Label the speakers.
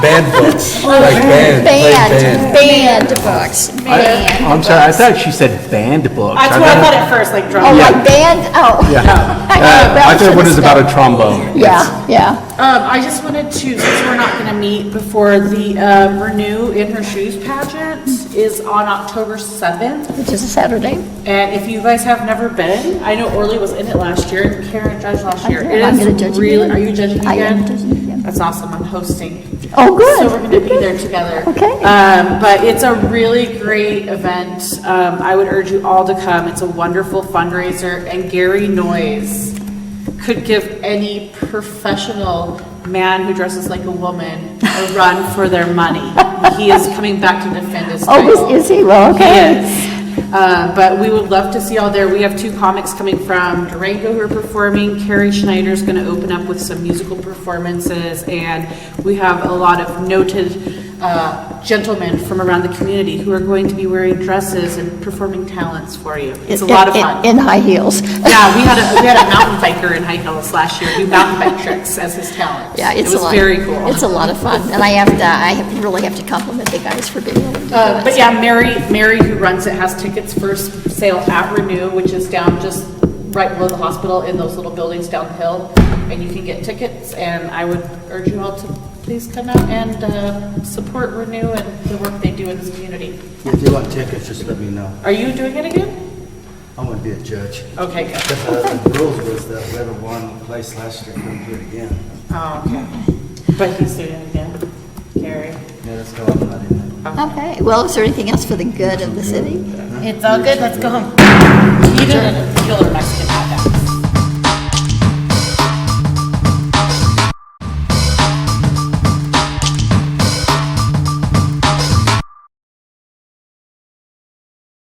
Speaker 1: Banned
Speaker 2: Oh,
Speaker 1: books, like banned,
Speaker 2: Banned, banned books, banned.
Speaker 3: I'm sorry, I thought she said banned books.
Speaker 4: That's what I thought at first, like
Speaker 2: Oh,
Speaker 4: drum.
Speaker 3: Yeah.
Speaker 2: like banned, oh.
Speaker 3: Yeah. Uh, I thought what is about a trombone.
Speaker 2: Yeah, yeah.
Speaker 4: Um, I just wanted to, since we're not gonna meet before the, um, Renew in Her Shoes pageant is on October seventh.
Speaker 2: Which is a Saturday.
Speaker 4: And if you guys have never been, I know Orly was in it last year, and Karen judged last year.
Speaker 2: did. I'm gonna
Speaker 4: It
Speaker 2: judge
Speaker 4: is really,
Speaker 2: again.
Speaker 4: are you judging
Speaker 2: I am
Speaker 4: again?
Speaker 2: judging again.
Speaker 4: That's awesome, I'm hosting.
Speaker 2: Oh, good.
Speaker 4: So we're gonna
Speaker 2: Good,
Speaker 4: be
Speaker 2: good.
Speaker 4: there together.
Speaker 2: Okay.
Speaker 4: Um, but it's a really great event. Um, I would urge you all to come. It's a wonderful fundraiser and Gary Noyes could give any professional man who dresses like a woman a run for their money. He is coming back to defend his title.
Speaker 2: Oh, is is he? Well, okay.
Speaker 4: Yes. Uh, But we would love to see all there. We have two comics coming from Durango who are performing. Carrie Schneider's going to open up with some musical performances. And we have a lot of noted uh, gentlemen from around the community who are going to be wearing dresses and performing talents for you. It's a lot of
Speaker 2: In-
Speaker 4: fun.
Speaker 2: In in high heels.
Speaker 4: Yeah, we had a, we had a mountain biker in high heels last year do mountain bike tricks as his talent.
Speaker 2: Yeah, it's a lot.
Speaker 4: It was very cool.
Speaker 2: It's a lot of fun, and I have to, I have- really have to compliment the guys for being able to do
Speaker 4: Uh,
Speaker 2: that.
Speaker 4: But yeah, Mary, Mary who runs it has tickets for s- sale at Renew, which is down just right below the hospital in those little buildings downhill. And you can get tickets and I would urge you all to please come out and uh, support Renew and the work they do in this community.
Speaker 5: If you want tickets, just let me know.
Speaker 4: Are you doing it again?
Speaker 5: I want to be a judge.
Speaker 4: Okay, good.
Speaker 5: Because uh, the rules was that whoever won place last year couldn't do it again.
Speaker 4: Oh, okay. But he's doing it again, Gary.
Speaker 5: Yeah, that's how I'm not in there.
Speaker 2: Okay, well, is there anything else for the good of the city?
Speaker 6: It's all good, let's go home.
Speaker 4: He did a killer Mexican